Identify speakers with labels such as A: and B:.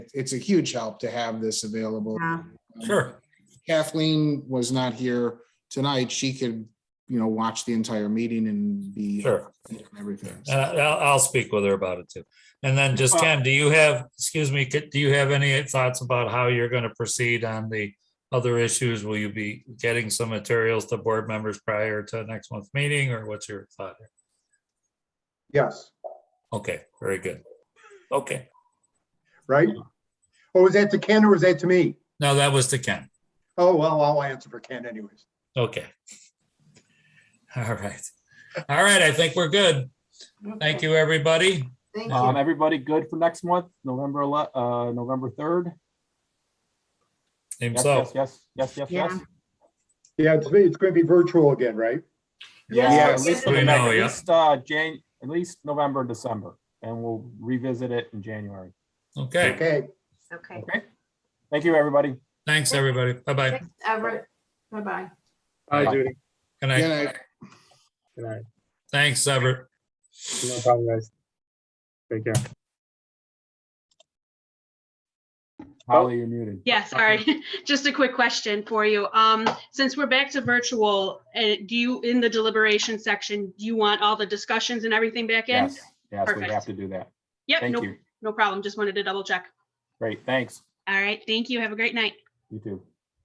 A: it's a huge help to have this available. Um,
B: Yeah.
C: Sure.
A: Kathleen was not here tonight. She could, you know, watch the entire meeting and be
C: Sure. Uh,
A: and everything.
C: And I- I'll, I'll speak with her about it too. And then just Ken, do you have, excuse me, could- do you have any thoughts about how you're going to proceed on the other issues? Will you be getting some materials to board members prior to next month's meeting or what's your thought? here?
D: Yes,
C: Okay, very good. Okay,
D: right? Or was that to Ken or was that to me?
C: now that was to Ken.
D: Oh, well, I'll answer for Ken anyways.
C: Okay. All right. All right, I think we're good. Thank you, everybody.
B: Thank
E: Um,
B: you.
E: everybody good for next month, November ele- uh, November third?
C: Same
E: Yes,
C: so.
E: yes, yes, yes, yes,
B: Yeah.
E: yes.
D: Yeah, it's, it's going to be virtual again, right?
E: Yeah, at
A: Yes.
E: least for the
C: I know,
E: next- at
C: yeah.
E: least, uh, Jan, at least November, December, and we'll revisit it in January.
C: Okay,
D: Okay,
B: Okay.
E: Okay? Thank you, everybody.
C: thanks, everybody. Bye-bye.
B: Thanks, Everett. Bye-bye.
F: Hi,
E: Bye.
F: Judy.
C: Good
A: Good
C: night.
A: night.
F: Good night.
C: Thanks, Everett.
F: No problem, guys. Take care.
E: Holly, you're muted.
G: Yeah, sorry. Just a quick question for you. Um, since we're back to virtual, uh, do you, in the deliberation section, do you want all the discussions and everything back in?
E: Yes, yes, we
G: Perfect.
E: have to do that.
G: Yep,
E: Thank
G: no,
E: you.
G: no problem. Just wanted to double check.
E: Great, thanks.
G: All right, thank you. Have a great night.
E: You too.